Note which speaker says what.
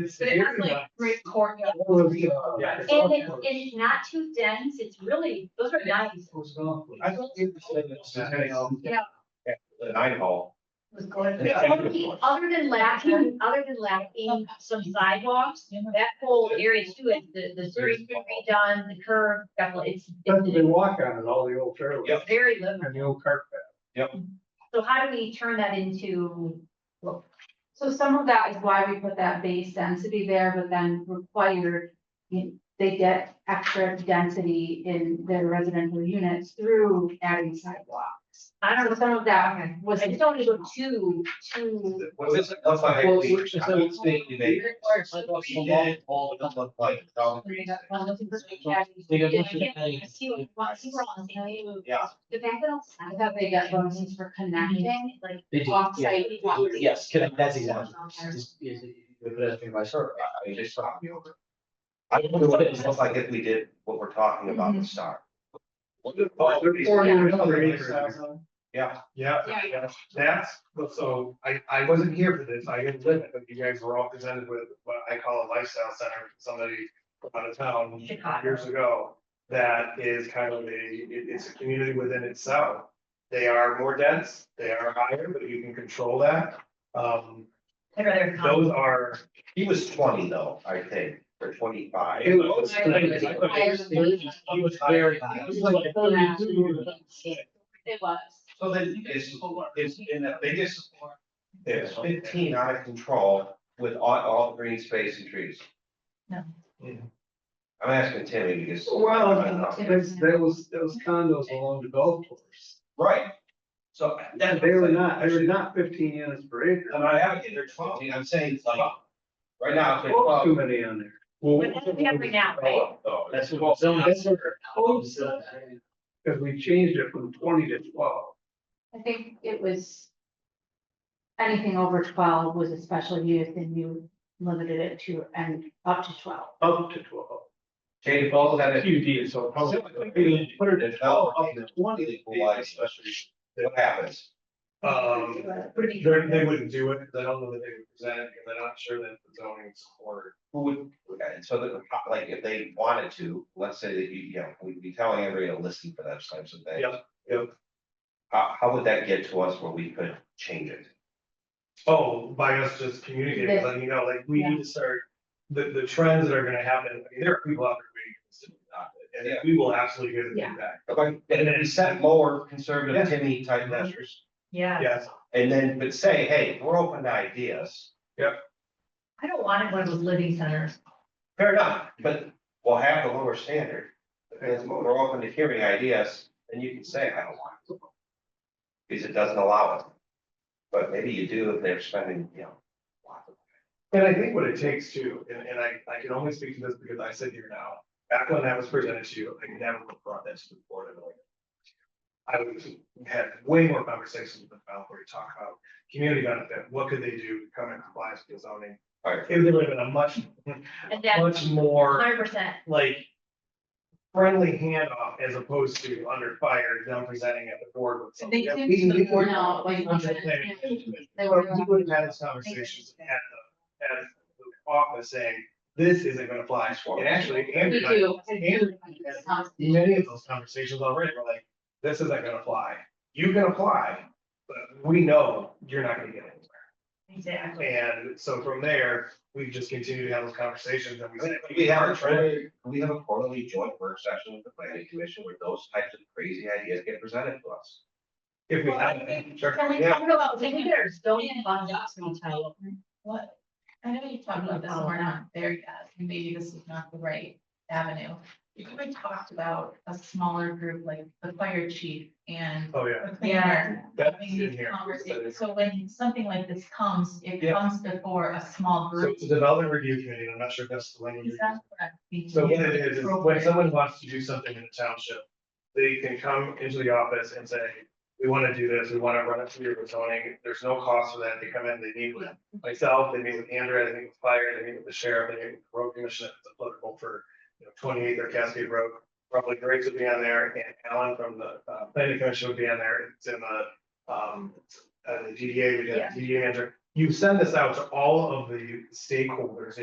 Speaker 1: But
Speaker 2: But it has like great courtyard.
Speaker 1: Yeah.
Speaker 2: And it, and it's not too dense, it's really, those are nice.
Speaker 1: I thought they were saying that Saturday, um,
Speaker 2: Yeah.
Speaker 1: the Nine hall.
Speaker 2: was going-
Speaker 1: Yeah, I think it's-
Speaker 2: Other than lacking, other than lacking some sidewalks, that whole area too, and the, the street's been redone, the curve, definitely, it's,
Speaker 3: That's what they
Speaker 2: it's
Speaker 3: walk on it, all the old trailers.
Speaker 1: Yep.
Speaker 2: very livable.
Speaker 3: And the old cart
Speaker 2: So how do we turn that into,
Speaker 4: So some of that is why we put that base density there, but then required, you- they get extra density in their residential units through adding sidewalks.
Speaker 2: I don't
Speaker 4: So
Speaker 2: know,
Speaker 4: some of that
Speaker 2: I
Speaker 4: was.
Speaker 2: just don't want to go too, too.
Speaker 1: Was this enough I
Speaker 5: Well,
Speaker 1: think,
Speaker 5: it's- it's-
Speaker 1: I would say they-
Speaker 5: It requires like a
Speaker 1: She
Speaker 5: long
Speaker 1: did.
Speaker 5: haul
Speaker 1: It looked like, um,
Speaker 5: They got
Speaker 2: Yeah,
Speaker 5: much of
Speaker 2: I
Speaker 5: a-
Speaker 2: see what- I see we're on the same page.
Speaker 1: Yeah.
Speaker 2: The fact that I'll-
Speaker 4: I thought they got bonuses for connecting,
Speaker 2: like,
Speaker 5: They do, yeah.
Speaker 4: offsite. walks.
Speaker 5: Yes, connect- that's exactly. Is- is- The pedestrian by survey.
Speaker 1: I uh, just stopped me over. I wonder what it looks like if we did what we're talking about
Speaker 5: Mm-hmm.
Speaker 1: with Star. Oh,
Speaker 3: path.
Speaker 1: 40
Speaker 3: Yeah.
Speaker 1: Yeah,
Speaker 3: Yeah,
Speaker 4: Yeah.
Speaker 3: yeah. that's, but so I, I wasn't here for this, I didn't live it, but you guys were all presented with what I call a lifestyle center, from somebody out of town
Speaker 2: Chicago.
Speaker 3: years ago. That is kind of a, it- it's a community within itself. They are more dense, they are higher, but you can control that. Um,
Speaker 2: I'd rather.
Speaker 3: those are.
Speaker 1: he was twenty though, I think, or twenty-five.
Speaker 3: It was-
Speaker 2: I don't
Speaker 5: It
Speaker 2: know.
Speaker 5: was very high.
Speaker 4: It was.
Speaker 1: So then it's, it's in the biggest, there's fifteen out of control with all, all green space and trees.
Speaker 2: No.
Speaker 3: Yeah.
Speaker 1: I'm asking Timmy because.
Speaker 3: Well, that's, that was, that was condos along the golf course.
Speaker 1: Right. So then.
Speaker 3: They were not, they were not fifteen units per acre.
Speaker 1: I'm not advocating they're twelve, I'm saying it's like, right now, it's like
Speaker 3: Well, Too
Speaker 1: twelve.
Speaker 3: many on there.
Speaker 2: But that's what we have right now, right?
Speaker 1: Though.
Speaker 5: That's what zone is.
Speaker 3: Cause we changed it from twenty to twelve.
Speaker 4: I think it was. Anything over twelve was a special use and you limited it to and up to twelve.
Speaker 3: Up to twelve.
Speaker 1: Katie Falls had it,
Speaker 3: QD is so.
Speaker 1: probably-
Speaker 3: Put it at twelve, up to twenty.
Speaker 1: Well, I- what happens?
Speaker 3: Um,
Speaker 2: Would it be-
Speaker 3: they, they wouldn't do it, because I don't know that they would present, it, because I'm not sure that the zoning support.
Speaker 1: Who would, and so that, like, if they wanted to, let's say that you, you know, we'd be telling everybody to listen for those types of things.
Speaker 3: Yep, yep.
Speaker 1: How, how would that get to us where we could change it?
Speaker 3: Oh, by us just communicating, letting you know, like, we need to start, the, the trends that are gonna happen, I mean, there are people out there waiting. for this to be adopted, And we will absolutely get the
Speaker 2: Yeah.
Speaker 3: feedback.
Speaker 1: Okay, and then set lower conservative Timmy type measures,
Speaker 2: Yeah,
Speaker 3: Yes,
Speaker 1: and then, but say, hey, we're open to ideas.
Speaker 2: I don't want it one of those living centers.
Speaker 1: Fair enough, but we'll have the lower standard, because we're open to hearing ideas, and you can say, I don't want it. Because it doesn't allow it. But maybe you do if they're spending, you know. lots of-
Speaker 3: and I think what it takes too, and, and I, I can only speak to this because I sit here now, back when that was presented to you, I never would have brought that to the board, and like. I would have had way more conversations with the developer, to talk about community benefit, what could they do to come in compliance with the zoning?
Speaker 1: All right,
Speaker 3: It would have been a much,
Speaker 2: And that's
Speaker 3: much more
Speaker 2: hundred percent.
Speaker 3: like friendly handoff as opposed to under fire, them presenting at the board with something. that we- we
Speaker 4: No,
Speaker 3: were-
Speaker 4: like,
Speaker 3: I'm just saying.
Speaker 4: They
Speaker 3: Or
Speaker 4: were.
Speaker 3: we would have had these conversations at the, at the office saying, this isn't gonna fly. And actually,
Speaker 4: We
Speaker 3: Andrew, and I-
Speaker 4: do.
Speaker 3: Andrew has had many of those conversations already, we're like, this isn't gonna fly. You can apply, but we know you're not gonna get it.
Speaker 2: Exactly.
Speaker 3: And so from there, we just continue to have those conversations and we. say,
Speaker 1: we have a quarterly, we have a quarterly joint work session with the planning commission where those types of crazy ideas get presented to us.
Speaker 3: If we
Speaker 2: Well, I
Speaker 3: have.
Speaker 2: think-
Speaker 3: Sure.
Speaker 2: Can we
Speaker 1: Yeah.
Speaker 2: talk about, maybe there's zoning funds up sometime.
Speaker 6: What, I know you talked about this, and we're not there yet, and maybe this is not the right avenue. You could have talked about a smaller group, like the fire chief and
Speaker 3: Oh, yeah,
Speaker 6: the
Speaker 2: Yeah.
Speaker 6: planner.
Speaker 3: that's
Speaker 6: Having
Speaker 3: in
Speaker 6: these
Speaker 3: here.
Speaker 6: conversations, so when something like this comes, it
Speaker 3: Yeah.
Speaker 6: comes before a small
Speaker 3: So
Speaker 6: group.
Speaker 3: it's a development review committee, and I'm not sure if that's the language.
Speaker 6: Is that correct?
Speaker 3: So what it is, is when someone wants to do something in the township, they can come into the office and say, we want to do this, we want to run it through your zoning, there's no cost for that, they come in, they meet with myself, they meet with Andrea, they meet with fire, they meet with the sheriff, they meet with the road commissioner, it's applicable for you know, twenty-eighth or Cascade Road, probably Griggs would be on there, and Alan from the uh, planning commission would be on there, it's in the um, uh, the DDA, we did
Speaker 2: Yeah.
Speaker 3: DDA manager. You send this out to all of the stakeholders